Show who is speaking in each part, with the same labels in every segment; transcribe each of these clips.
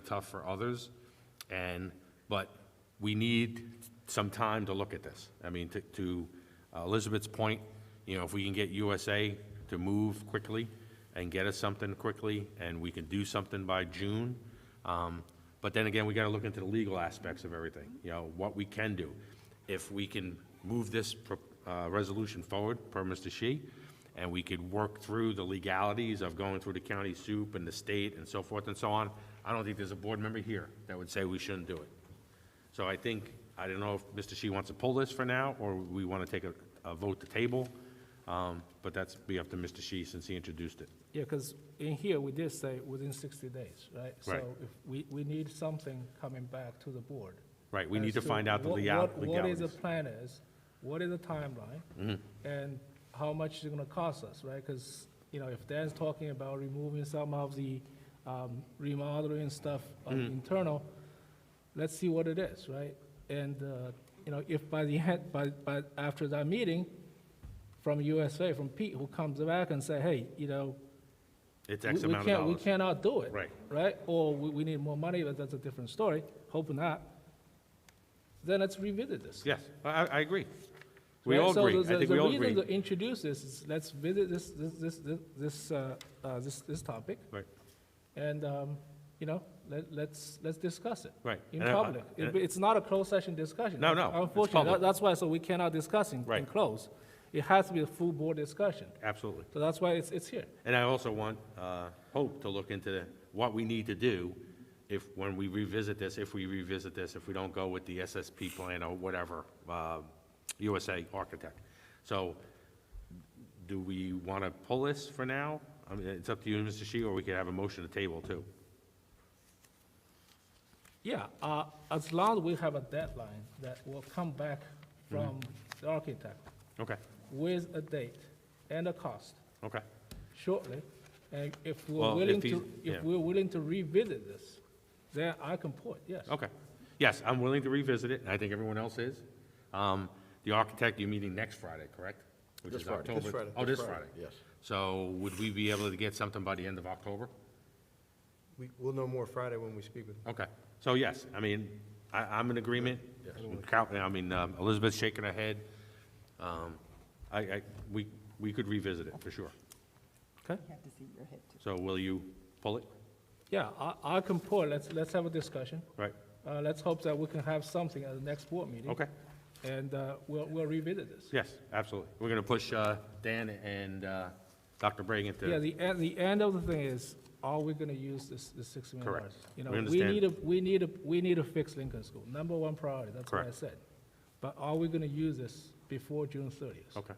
Speaker 1: tough for others, and, but we need some time to look at this. I mean, to- to Elizabeth's point, you know, if we can get USA to move quickly and get us something quickly, and we can do something by June, um, but then again, we gotta look into the legal aspects of everything, you know, what we can do. If we can move this pro- uh, resolution forward, per Mr. Shi, and we could work through the legalities of going through the county soup and the state and so forth and so on, I don't think there's a board member here that would say we shouldn't do it. So I think, I don't know if Mr. Shi wants to pull this for now, or we want to take a, a vote to table, um, but that's be up to Mr. Shi since he introduced it.
Speaker 2: Yeah, because in here, we did say within 60 days, right?
Speaker 1: Right.
Speaker 2: So if we, we need something coming back to the board.
Speaker 1: Right, we need to
Speaker 2: as
Speaker 1: find out the
Speaker 2: what-
Speaker 1: legal-
Speaker 2: what- What is the
Speaker 1: legalities. Mm-hmm.
Speaker 2: plan is, what is the timeline? And how much is it gonna cost us, right? Because, you know, if Dan's talking about removing some of the um, remodeling stuff on
Speaker 1: Mm-hmm.
Speaker 2: internal, let's see what it is, right? And, uh, you know, if by the end, by, by, after that meeting, from USA, from Pete, who comes back and say, hey, you know,
Speaker 1: It's
Speaker 2: we-
Speaker 1: X
Speaker 2: we
Speaker 1: amount of
Speaker 2: can't- We
Speaker 1: dollars.
Speaker 2: cannot do it.
Speaker 1: Right.
Speaker 2: Right? Or we, we need more money, but that's a different story, hope not. Then let's revisit this.
Speaker 1: Yes, I, I I agree. We
Speaker 2: Right?
Speaker 1: all
Speaker 2: So
Speaker 1: agree,
Speaker 2: the-
Speaker 1: I
Speaker 2: the-
Speaker 1: think we all
Speaker 2: The reason
Speaker 1: agree.
Speaker 2: to introduce this is, let's visit this, this, this, this- this, uh, uh, this, this topic,
Speaker 1: Right,
Speaker 2: and, um, you know, let, let's, let's discuss it.
Speaker 1: Right.
Speaker 2: In
Speaker 1: And I-
Speaker 2: public.
Speaker 1: and
Speaker 2: It- It's not a closed session discussion.
Speaker 1: No, no, it's
Speaker 2: Unfortunately,
Speaker 1: public.
Speaker 2: that- that's why, so we cannot discuss in, in
Speaker 1: Right.
Speaker 2: close. It has to be a full board discussion,
Speaker 1: absolutely.
Speaker 2: so that's why it's, it's here.
Speaker 1: And I also want uh, Hope to look into what we need to do if, when we revisit this, if we revisit this, if we don't go with the SSP plan or whatever, uh, USA Architect. So do we want to pull this for now? I mean, it's up to you, Mr. Shi, or we could have a motion to table too.
Speaker 2: Yeah, uh, as long as we have a deadline that will come back from
Speaker 1: Mm-hmm.
Speaker 2: the architect
Speaker 1: Okay,
Speaker 2: with a date and a cost
Speaker 1: okay.
Speaker 2: shortly, and if we're
Speaker 1: Well, if
Speaker 2: willing
Speaker 1: he's-
Speaker 2: to,
Speaker 1: yeah.
Speaker 2: if we're willing to revisit this, then I can put, yes.
Speaker 1: Okay. Yes, I'm willing to revisit it, and I think everyone else is. Um, The architect, you're meeting next Friday, correct? Which
Speaker 3: This
Speaker 1: is
Speaker 3: Friday. This
Speaker 1: October-
Speaker 3: Friday.
Speaker 1: Oh,
Speaker 3: This
Speaker 1: this
Speaker 3: Friday,
Speaker 1: Friday?
Speaker 3: yes.
Speaker 1: So would we be able to get something by the end of October?
Speaker 4: We, we'll know more Friday when we speak with them.
Speaker 1: Okay. So yes, I mean, I, I'm in agreement. Count- I mean, um, Elizabeth's shaking her head. Um, I, I, we, we could revisit it, for sure.
Speaker 2: Okay,
Speaker 5: have to see your head too.
Speaker 1: So will you pull it?
Speaker 2: yeah, I, I can put, let's, let's have a discussion.
Speaker 1: Right?
Speaker 2: Uh, let's hope that we can have something at the next board meeting.
Speaker 1: Okay.
Speaker 2: And, uh, we'll, we'll revisit this.
Speaker 1: Yes, absolutely. We're going to push uh, Dan and uh, Dr. Bregan
Speaker 2: Yeah,
Speaker 1: to,
Speaker 2: the, end- the end of the thing is, are we gonna use this, this six million
Speaker 1: Correct.
Speaker 2: dollars? You know,
Speaker 1: We
Speaker 2: we need
Speaker 1: understand.
Speaker 2: a, we need a, we need to fix Lincoln School, number one priority, that's what I
Speaker 1: Correct.
Speaker 2: said. But are we gonna use this before June thirtieth?
Speaker 1: okay.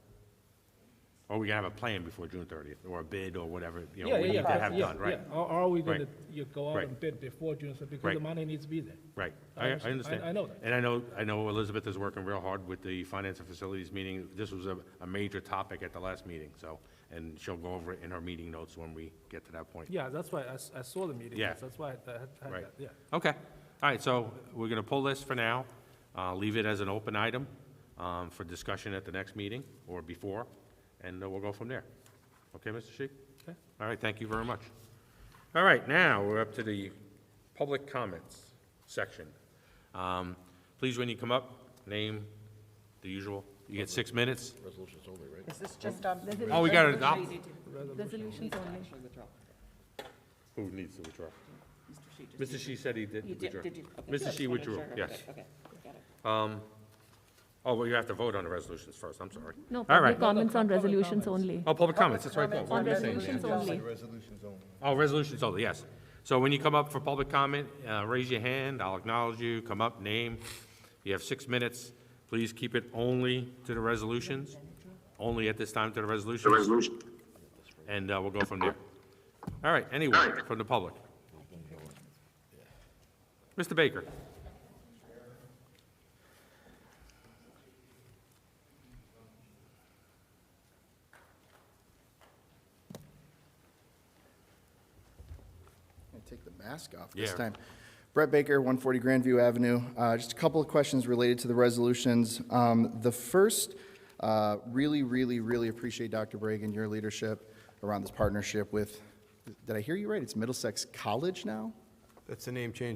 Speaker 1: Or we can have a plan before June 30th, or a bid, or whatever, you know,
Speaker 2: Yeah,
Speaker 1: we
Speaker 2: yeah,
Speaker 1: need
Speaker 2: yeah,
Speaker 1: to have
Speaker 2: yeah,
Speaker 1: done, right?
Speaker 2: yeah. Are, are we gonna,
Speaker 1: Right.
Speaker 2: you go out
Speaker 1: Right.
Speaker 2: and bid before June thirtieth, because
Speaker 1: Right.
Speaker 2: the money needs to be there?
Speaker 1: Right,
Speaker 2: I
Speaker 1: I, I
Speaker 2: understand. I-
Speaker 1: understand.
Speaker 2: I know that.
Speaker 1: And I know, I know Elizabeth is working real hard with the finance and facilities meeting. This was a, a major topic at the last meeting, so, and she'll go over it in her meeting notes when we get to that point.
Speaker 2: Yeah, that's why, I, s- I saw the meeting,
Speaker 1: Yeah.
Speaker 2: minutes, that's why I had- I had
Speaker 1: Right.
Speaker 2: that, yeah.
Speaker 1: Okay, all right, so we're gonna pull this for now, uh, leave it as an open item, um, for discussion at the next meeting, or before, and uh, we'll go from there. Okay, Mr. Shi?
Speaker 2: Okay.
Speaker 1: All right, thank you very much. All right, now, we're up to the public comments section. Um, Please, when you come up, name the usual, you get six minutes.
Speaker 3: Resolutions only, right?
Speaker 5: Is this just on?
Speaker 1: Oh, we gotta adopt,
Speaker 5: Resolutions only.
Speaker 1: who needs to withdraw?
Speaker 5: Mr. Shi just-
Speaker 1: Mr. Shi said he
Speaker 5: You
Speaker 1: did
Speaker 5: did,
Speaker 1: withdraw.
Speaker 5: did you? okay,
Speaker 1: Mr.
Speaker 5: good.
Speaker 1: Shi
Speaker 5: Wanted to
Speaker 1: withdrew,
Speaker 5: check.
Speaker 1: yes.
Speaker 5: Okay, Okay, got it.
Speaker 1: Oh, well, you have to vote on the resolutions first, I'm sorry.
Speaker 6: No,
Speaker 1: All right.
Speaker 6: public comments on resolutions only.
Speaker 1: Oh, public comments, that's right. Paul. What
Speaker 6: On
Speaker 1: am I saying?
Speaker 6: resolutions only.
Speaker 4: Resolutions only.
Speaker 1: Oh, resolutions only, yes. So when you come up for public comment, uh, raise your hand, I'll acknowledge you, come up, name. You have six minutes. Please keep it only to the resolutions, only at this time to the resolutions. And uh, we'll go from there. All right, anyone from the public? Mr. Baker?
Speaker 7: I take the mask off this
Speaker 1: Yeah.
Speaker 7: time. Brett Baker, 140 Grandview Avenue. Uh, Just a couple of questions related to the resolutions. Um, The first, uh, really, really, really appreciate Dr. Bregan, your leadership around this partnership with, did I hear you right? It's Middlesex College now?
Speaker 4: That's the name change